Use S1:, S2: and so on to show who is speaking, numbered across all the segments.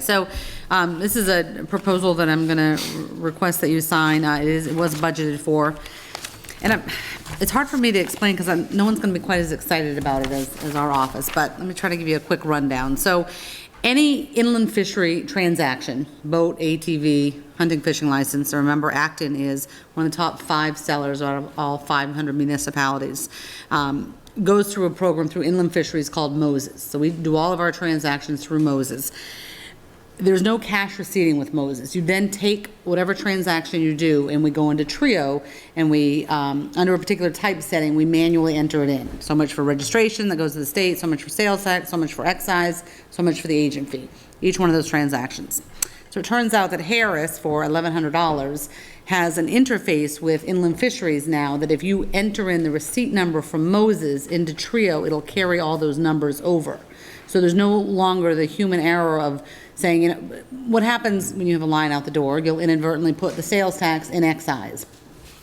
S1: So um, this is a proposal that I'm going to request that you sign. Uh, It is, it was budgeted for. And I'm- it's hard for me to explain because I'm, no one's going to be quite as excited about it as, as our office, but let me try to give you a quick rundown. So any inland fishery transaction, boat, ATV, hunting, fishing license, remember Acton is one of the top five sellers out of all 500 municipalities. Um, Goes through a program through inland fisheries called Moses. So we do all of our transactions through Moses there's no cash receipting with Moses. You then take whatever transaction you do, and we go into Trio, and we, um, under a particular type setting, we manually enter it in. So much for registration that goes to the state, so much for sales tax, so much for excise, so much for the agent fee, each one of those transactions. So it turns out that Harris, for $1,100, has an interface with inland fisheries now that if you enter in the receipt number from Moses into Trio, it'll carry all those numbers over. So there's no longer the human error of saying, you know, what happens when you have a line out the door? You'll inadvertently put the sales tax in excise.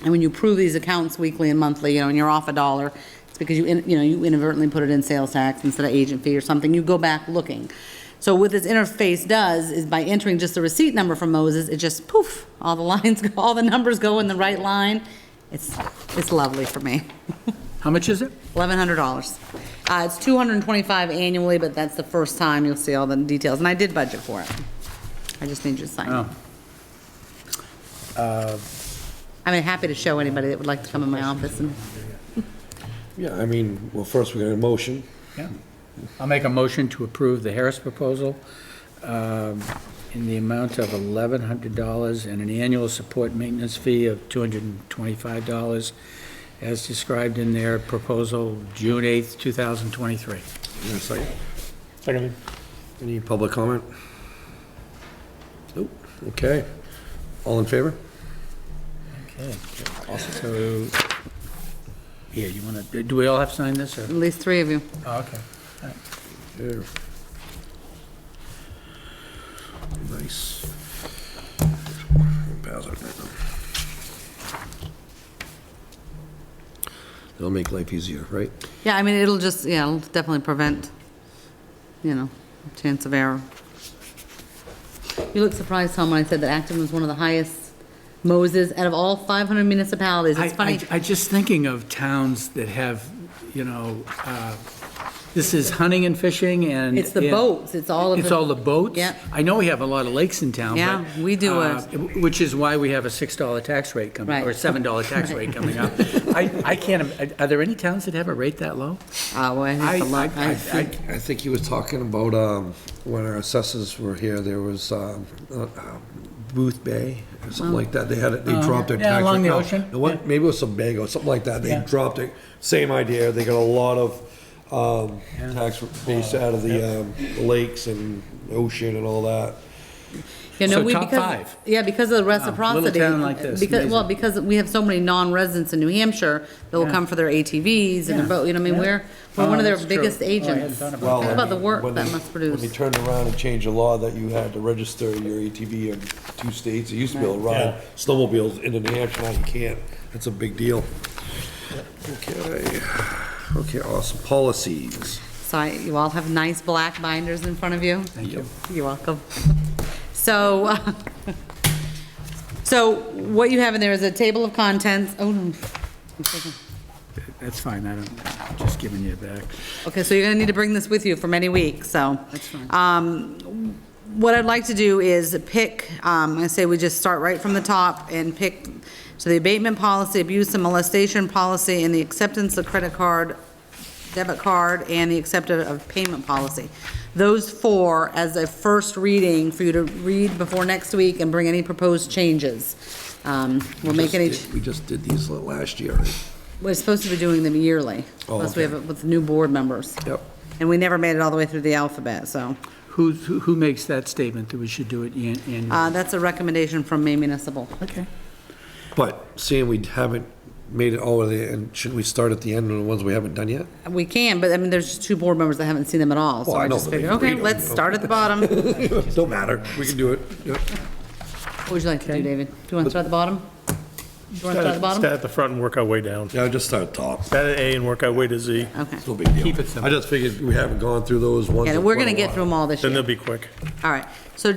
S1: And when you prove these accounts weekly and monthly, you know, and you're off a dollar, it's because you, in- you know, you inadvertently put it in sales tax instead of agent fee or something. You go back looking. So what this interface does is by entering just the receipt number from Moses, it just poof, all the lines, go all the numbers go in the right line. It's, it's lovely for me.
S2: How much is it?
S1: Eleven hundred dollars. Uh, it's two hundred and twenty-five annually, but that's the first time you'll see all the details, and I did budget for it. I just need you to sign. it.
S2: Oh.
S1: I'm happy to show anybody that would like to come in my office and,
S3: Yeah, I mean, well, first we're going to motion.
S2: Yeah. I'll make a motion to approve the Harris proposal um, in the amount of $1,100 and an annual support maintenance fee of $225, as described in their proposal, June 8th, 2023.
S3: Is there a second?
S4: Seconded.
S3: Any public comment? Nope, okay. All in favor?
S2: Okay. So, here, you want to, do we all have to sign this, or?
S1: at least three of you.
S2: Oh, okay.
S3: Yeah. Nice. Pass it right now. That'll make life easier, right?
S1: Yeah, I mean, it'll just, yeah, it'll definitely prevent, you know, chance of error. You look surprised, Tom, when I said that Acton was one of the highest Moses out of all five hundred municipalities. It's
S2: I-
S1: funny.
S2: I, I just thinking of towns that have, you know, uh, this is hunting and fishing and.
S1: It's the
S2: and-
S1: boats, it's all of
S2: It's
S1: the-
S2: all the boats?
S1: Yeah.
S2: I know we have a lot of lakes in town, but.
S1: Yeah, we do
S2: uh, Which is why we have a $6 tax rate coming, or
S1: Right.
S2: $7 tax rate coming up. I, I can't, im- are there any towns that have a rate that low?
S1: Ah, well, I have to look.
S2: I-
S3: I
S1: I-
S3: think, I think he was talking about, um, when our assessors were here, there was, um, uh, uh, Booth Bay, or something like that, they had it, they dropped their
S2: Oh. yeah,
S3: tax. rate.
S2: along the
S3: No,
S2: ocean,
S3: no, what- Maybe it was Sebago, something like that, they
S2: Yeah.
S3: dropped it, same idea, they got a lot of, um, tax base out of the, um, lakes and ocean and all that.
S1: You know,
S2: So
S1: we-
S2: top
S1: because-
S2: five.
S1: Yeah, because of the reciprocity.
S2: town like this,
S1: Because, well,
S2: amazing.
S1: because we have so many non-residents in New Hampshire that will
S2: Yeah.
S1: come for their ATVs and their
S2: Yeah.
S1: boat, you know, I mean,
S2: Yeah.
S1: we're, we're one
S2: Oh,
S1: of their
S2: that's true.
S1: biggest
S2: Oh, I hadn't
S1: agents.
S2: thought
S1: Think
S2: about that.
S1: about the work
S3: When
S1: that
S3: they-
S1: must
S3: When they
S1: produce.
S3: turned around and changed the law that you had to register your ATV in two states, you used to be able to
S4: Right.
S3: ride snowmobiles into New Hampshire, now you can't. That's a big deal. Okay, okay, awesome, policies.
S1: So I- you all have nice black binders in front of you.
S2: Thank you.
S1: You're welcome. So, uh, so what you have in there is a table of contents. Oh, no.
S2: That's fine, I don't, just giving you back.
S1: Okay, so you're gonna need to bring this with you for many weeks, so. That's fine. What I'd like to do is pick, um, I say we just start right from the top and pick, so the abatement policy, abuse and molestation policy, and the acceptance of credit card, debit card, and the acceptance of payment policy. Those four as a first reading for you to read before next week and bring any proposed changes. Um, We'll make any,
S3: Just did- We just did these la- last year, right?
S1: we're supposed to be doing them yearly,
S3: Oh,
S1: plus we
S3: okay.
S1: have it with new board members.
S3: Yep.
S1: And we never made it all the way through the alphabet, so.
S2: Who, who who makes that statement that we should do it an- annually?
S1: Uh, that's a recommendation from Maine Municipal.
S2: Okay.
S3: But seeing we haven't made it all the way, and should we start at the end on the ones we haven't done yet?
S1: We can, but I mean, there's just two board members that haven't seen them at all, so
S3: Well, I
S1: I
S3: know
S1: just
S3: that they
S1: figured,
S3: can
S1: okay,
S3: read 'em.
S1: let's start at the bottom. What
S3: Don't matter, we can do it. Yep.
S1: would you like to do, David? Do you want to start at the bottom? Do you want to start at the
S4: Start
S1: bottom?
S4: at the front and work our way down.
S3: Yeah, just start top.
S4: Start at A and work our way to Z,
S1: Okay.
S3: No big deal.
S2: Keep it simple.
S3: I just figured we haven't gone through those oings.
S1: Yeah,
S3: in
S1: we're
S3: quite
S1: going to
S3: a
S1: get
S3: while.
S1: through them all this
S4: then
S1: year.
S4: they'll be quick.
S1: All right. So